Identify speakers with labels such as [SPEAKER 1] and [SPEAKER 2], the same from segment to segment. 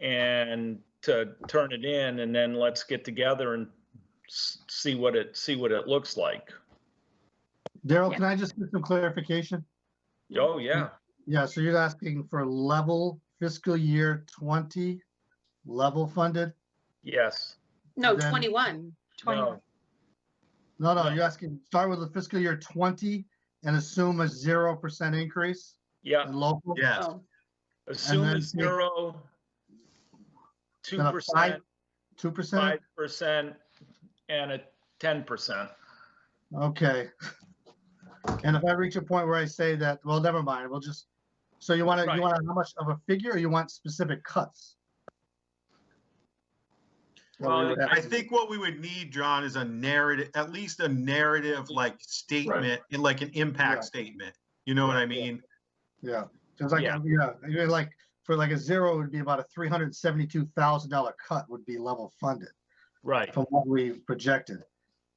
[SPEAKER 1] and to turn it in, and then let's get together and s- see what it, see what it looks like.
[SPEAKER 2] Daryl,
[SPEAKER 3] Yeah.
[SPEAKER 2] can I just get some clarification?
[SPEAKER 1] Oh, yeah,
[SPEAKER 2] Yeah, so you're asking for level fiscal year twenty, level funded?
[SPEAKER 1] yes,
[SPEAKER 3] No,
[SPEAKER 2] Then-
[SPEAKER 3] 21.
[SPEAKER 1] no,
[SPEAKER 2] No, no, you're asking, start with the fiscal year twenty and assume a zero percent increase
[SPEAKER 1] yeah,
[SPEAKER 2] in local?
[SPEAKER 4] Yeah,
[SPEAKER 3] Oh,
[SPEAKER 1] assume
[SPEAKER 2] then
[SPEAKER 1] a
[SPEAKER 2] take-
[SPEAKER 1] zero, two
[SPEAKER 2] Then a
[SPEAKER 1] percent,
[SPEAKER 2] Two percent?
[SPEAKER 1] five percent, and a ten percent.
[SPEAKER 2] Okay. And if I reach a point where I say that, well, never mind, we'll just, so you want to,
[SPEAKER 1] Right.
[SPEAKER 2] you want how much of a figure or you want specific cuts? Well, we would
[SPEAKER 1] Well,
[SPEAKER 2] have
[SPEAKER 4] Uh, I
[SPEAKER 2] to-
[SPEAKER 4] think what we would need, John, is a narrative, at least a narrative like statement and like an
[SPEAKER 2] Yeah.
[SPEAKER 4] impact statement. You know what I mean?
[SPEAKER 2] Yeah, it's like,
[SPEAKER 1] Yeah.
[SPEAKER 2] yeah, you're like, for like a zero would be about a three hundred and seventy-two thousand dollar cut would be level funded
[SPEAKER 1] Right,
[SPEAKER 2] from what we projected.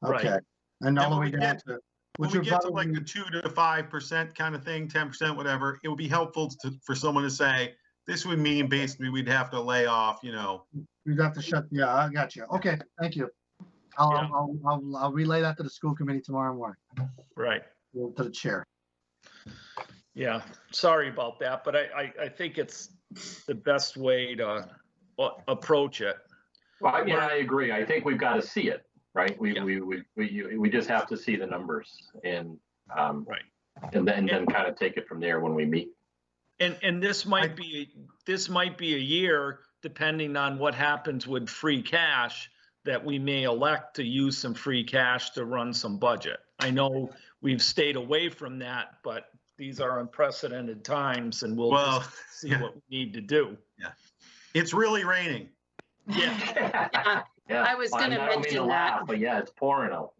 [SPEAKER 1] Right.
[SPEAKER 2] Okay, and all
[SPEAKER 4] And
[SPEAKER 2] the
[SPEAKER 4] when
[SPEAKER 2] way
[SPEAKER 4] we
[SPEAKER 2] down
[SPEAKER 4] get-
[SPEAKER 2] to,
[SPEAKER 4] When
[SPEAKER 2] which
[SPEAKER 4] we
[SPEAKER 2] would
[SPEAKER 4] get to
[SPEAKER 2] probably,
[SPEAKER 4] like the two to five percent kind of thing, ten percent, whatever, it would be helpful to, for someone to say, this would mean basically we'd have to lay off, you know,
[SPEAKER 2] we'd have to shut, yeah, I got you. Okay, thank you. I'll,
[SPEAKER 1] Yeah.
[SPEAKER 2] I'll, I'll, I'll relay that to the school committee tomorrow morning,
[SPEAKER 1] right.
[SPEAKER 2] or to the chair.
[SPEAKER 1] Yeah, sorry about that, but I, I, I think it's the best way to uh, approach it.
[SPEAKER 5] Well, I mean, I agree. I think we've got to see it, right? We,
[SPEAKER 1] Yeah.
[SPEAKER 5] we, we, we, you- we just have to see the numbers and, um,
[SPEAKER 1] Right.
[SPEAKER 5] And then, then kind of take it from there when we meet.
[SPEAKER 1] And, and this might be, this might be a year, depending on what happens with free cash, that we may elect to use some free cash to run some budget. I know we've stayed away from that, but these are unprecedented times and we'll
[SPEAKER 4] well,
[SPEAKER 1] just see
[SPEAKER 4] yeah.
[SPEAKER 1] what we need to do.
[SPEAKER 4] it's really raining.
[SPEAKER 1] Yeah,
[SPEAKER 5] Yeah,
[SPEAKER 3] I was
[SPEAKER 5] Well,
[SPEAKER 3] gonna
[SPEAKER 5] I don't mean to
[SPEAKER 3] mention that.
[SPEAKER 5] laugh, But yeah, it's pouring out.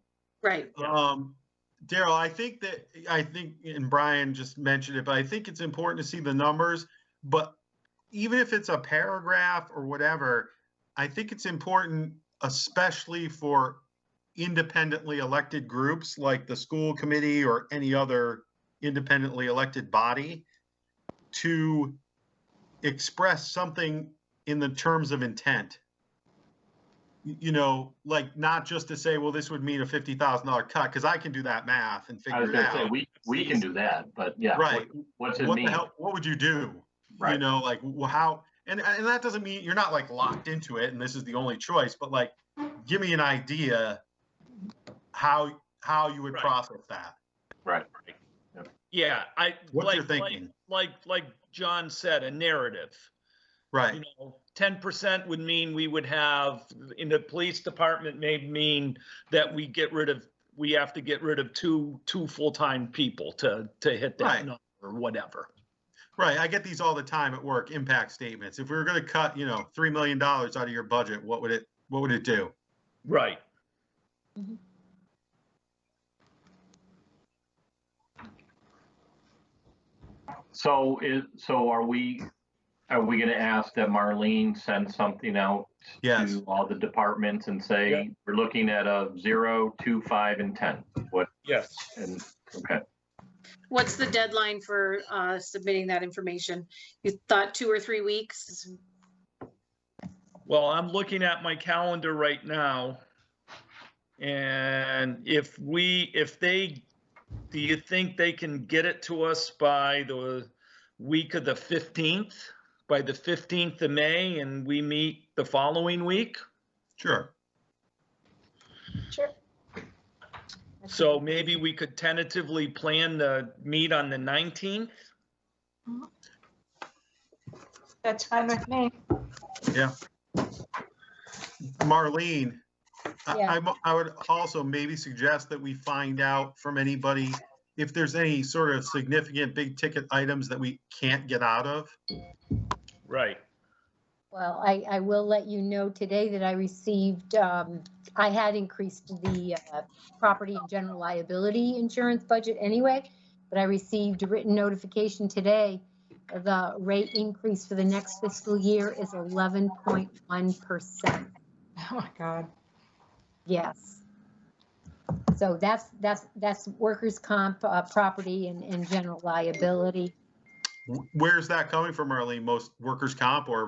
[SPEAKER 3] Right.
[SPEAKER 1] Yeah.
[SPEAKER 4] Um, Daryl, I think that, I think, and Brian just mentioned it, but I think it's important to see the numbers. But even if it's a paragraph or whatever, I think it's important, especially for independently elected groups like the school committee or any other independently elected body to express something in the terms of intent y- you know, like not just to say, well, this would mean a fifty thousand dollar cut, because I can do that math and
[SPEAKER 5] I was
[SPEAKER 4] figure it
[SPEAKER 5] gonna say,
[SPEAKER 4] out.
[SPEAKER 5] we, we can do that, but yeah. what-
[SPEAKER 4] Right.
[SPEAKER 5] What's it
[SPEAKER 4] What the
[SPEAKER 5] mean?
[SPEAKER 4] hell, what would you do? You
[SPEAKER 5] Right.
[SPEAKER 4] know, like wh- how, and, and that doesn't mean you're not like locked into it and this is the only choice, but like, give me an idea how, how you would
[SPEAKER 1] Right.
[SPEAKER 4] process that.
[SPEAKER 5] Right.
[SPEAKER 1] yeah, I.
[SPEAKER 4] What you're
[SPEAKER 1] like- like-
[SPEAKER 4] thinking,
[SPEAKER 1] Like, like John said, a narrative. you
[SPEAKER 4] right?
[SPEAKER 1] know, ten percent would mean we would have, in the police department may mean that we get rid of, we have to get rid of two, two full-time people to, to hit that
[SPEAKER 4] Right.
[SPEAKER 1] number or whatever.
[SPEAKER 4] Right, I get these all the time at work, impact statements. If we were gonna cut, you know, three million dollars out of your budget, what would it, what would it do?
[SPEAKER 1] Right.
[SPEAKER 5] So is, so are we, are we gonna ask that Marlene send something out
[SPEAKER 4] Yes.
[SPEAKER 5] to all the departments and
[SPEAKER 1] Yeah.
[SPEAKER 5] say, we're looking at a zero, two, five, and ten? What,
[SPEAKER 1] Yes.
[SPEAKER 5] and, okay.
[SPEAKER 3] What's the deadline for uh, submitting that information? You thought two or three weeks?
[SPEAKER 1] Well, I'm looking at my calendar right now. And if we, if they, do you think they can get it to us by the week of the fifteenth? By the fifteenth of May and we meet the following week?
[SPEAKER 4] Sure.
[SPEAKER 6] Sure.
[SPEAKER 1] So maybe we could tentatively plan the meet on the 19th?
[SPEAKER 6] That's fine with me.
[SPEAKER 4] Marlene, I,
[SPEAKER 6] Yeah.
[SPEAKER 4] I'm- I would also maybe suggest that we find out from anybody if there's any sort of significant big ticket items that we can't get out of.
[SPEAKER 1] Right.
[SPEAKER 6] Well, I, I will let you know today that I received, um, I had increased the, uh, property and general liability insurance budget anyway, but I received a written notification today. The rate increase for the next fiscal year is eleven point one percent.
[SPEAKER 7] Oh my God.
[SPEAKER 6] Yes. So that's, that's, that's workers' comp, uh, property and, and general liability.
[SPEAKER 4] Wh- Where's that coming from, Marlene? Most workers' comp or